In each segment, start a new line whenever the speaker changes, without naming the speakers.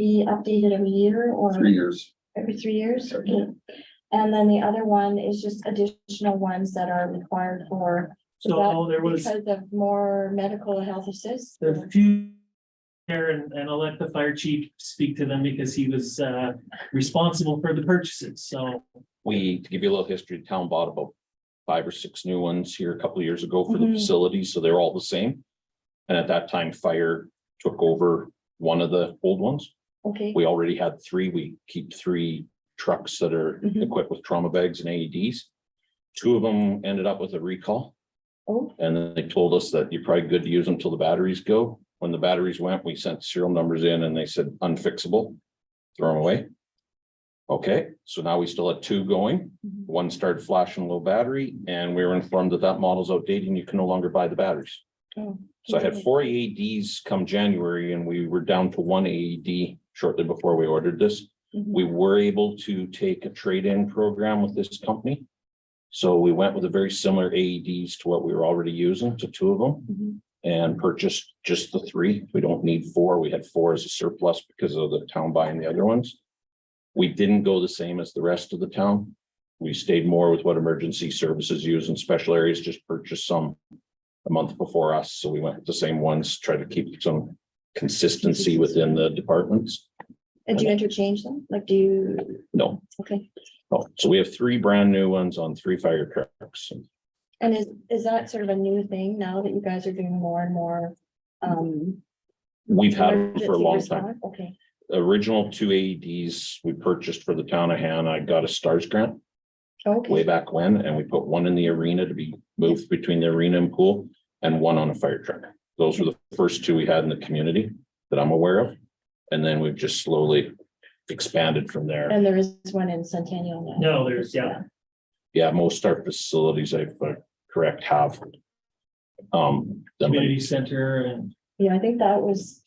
be updated every year or
three years.
every three years?
Every
Okay. And then the other one is just additional ones that are required for,
So there was,
because of more medical health assist.
there's a few there and, and I'll let the fire chief speak to them because he was, uh, responsible for the purchases. So
we, to give you a little history, the town bought about five or six new ones here a couple of years ago for the
Mhm.
facility, so they're all the same. And at that time, fire took over one of the old ones.
Okay,
We already had three. We keep three trucks that are
Mhm.
equipped with trauma bags and AEDs. Two of them ended up with a recall,
oh,
and then they told us that you're probably good to use them till the batteries go. When the batteries went, we sent serial numbers in and they said unfixable, throw them away. Okay, so now we still had two going.
mhm.
One started flashing low battery and we were informed that that model's outdated and you can no longer buy the batteries.
Oh,
So I had four AEDs come January and we were down to one AED shortly before we ordered this.
mhm.
We were able to take a trade-in program with this company. So we went with a very similar AEDs to what we were already using, to two of them,
Mhm.
and purchased just the three. We don't need four. We had four as a surplus because of the town buying the other ones. We didn't go the same as the rest of the town. We stayed more with what emergency services use and special areas, just purchased some a month before us. So we went with the same ones, tried to keep some consistency within the departments.
And do you interchange them? Like, do you,
No,
okay,
no. Oh, So we have three brand new ones on three fire trucks.
and is, is that sort of a new thing now that you guys are doing more and more? um,
We've had them for a
emergency
long time.
response? Okay,
Original two AEDs we purchased for the town of Hannah. I got a stars grant. way
okay,
back when, and we put one in the arena to be moved between the arena and pool and one on a fire truck. Those were the first two we had in the community that I'm aware of. And then we've just slowly expanded from there.
and there is one in Centennial now.
no, there's, yeah.
Yeah, most our facilities, I uh, correct, have. Um, them.
community center and
Yeah, I think that was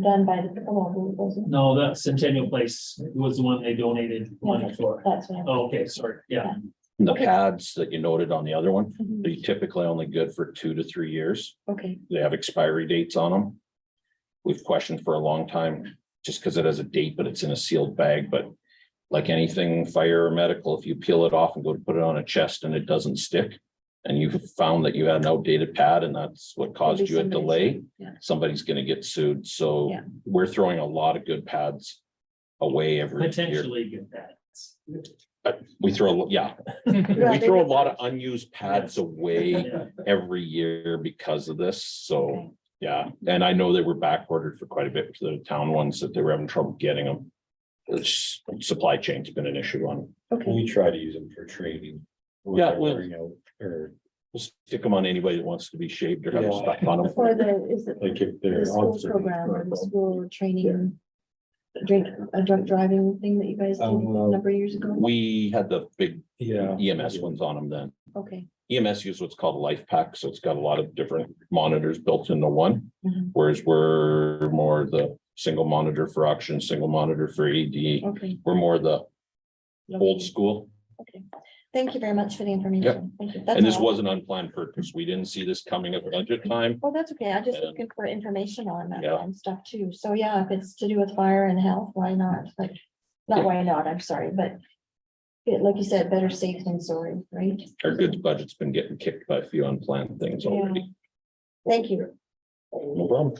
done by the pickleball group, wasn't it?
no, that Centennial Place was the one they donated money for.
That's what. I'm-
Um,
Oh, Okay, sorry, yeah.
the pads that you noted on the other one,
Mhm.
they typically only good for two to three years.
Okay,
they have expiry dates on them. We've questioned for a long time, just because it has a date, but it's in a sealed bag, but like anything fire or medical, if you peel it off and go to put it on a chest and it doesn't stick, and you found that you had an outdated pad and that's what caused you a
somebody's-
delay,
yeah.
somebody's gonna get sued, so
Yeah.
we're throwing a lot of good pads away every year.
Potentially get that.
We throw, yeah,
Yeah,
we
they
throw a
would-
lot of unused pads away
Yeah.
every year because of this,
Okay.
so, yeah, and I know they were back ordered for quite a bit for the town ones that they were having trouble getting them. It's- supply chain's been an issue on,
okay,
We try to use them for training. when
Yeah,
they're
well-
wearing out, Or
we'll stick them on anybody that wants to be shaved or have
Yeah.
stuff on them.
for the, is it
like if
the
they're.
school
on service,
program or the
well,
school training? Drink, a drunk driving thing that you guys did a
Um, well-
number of years ago?
We had the big
Yeah.
EMS ones on them then. E
Okay,
EMS uses what's called a life pack, so it's got a lot of different monitors built into one.
Mhm.
Whereas we're more the single monitor for auction, single monitor for AD,
okay.
we're more the old
lovely.
school.
Thank you very much for the information. Thank you. That's
And this
all.
was an unplanned purchase. We didn't see this coming at budget time.
Well, that's okay. I just
And-
looking for information on that
Yeah.
kind of stuff too. So yeah, if it's to do with fire and health, why not? Like, not
Yeah.
why not, I'm sorry, but yeah, like you said, better safe than sorry, right?
Our goods budget's been getting kicked by a few unplanned things already.
Thank you.
No problem.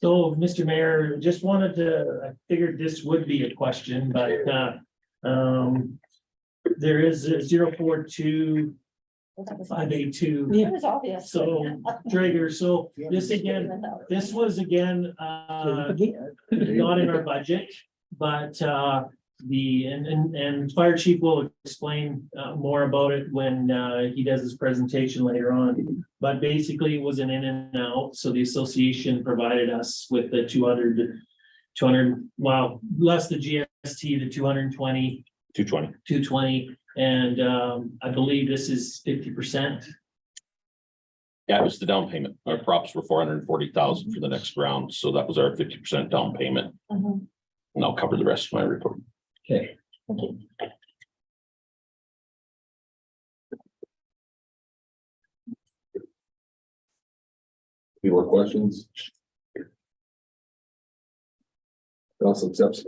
So, Mr. Mayor, just wanted to, I figured this would be a question, but, uh, um, there is a zero four two
Well, That was
five eight two
that was obvious.
So- trigger, so this again, this
This.
was again, uh, not in our budget, but, uh, the, and, and, and fire chief will explain, uh, more about it when, uh, he does his presentation later on. But basically it was an in and out, so the association provided us with the 200 200 wow, less the GST, the two hundred and twenty,
Two twenty.
two twenty, and, um, I believe this is fifty percent.
Yeah, it was the down payment. Our props were four hundred and forty thousand for the next round, so that was our fifty percent down payment.
Mm-hmm.
And I'll cover the rest of my report.
Okay.
Any more questions?
It also accepts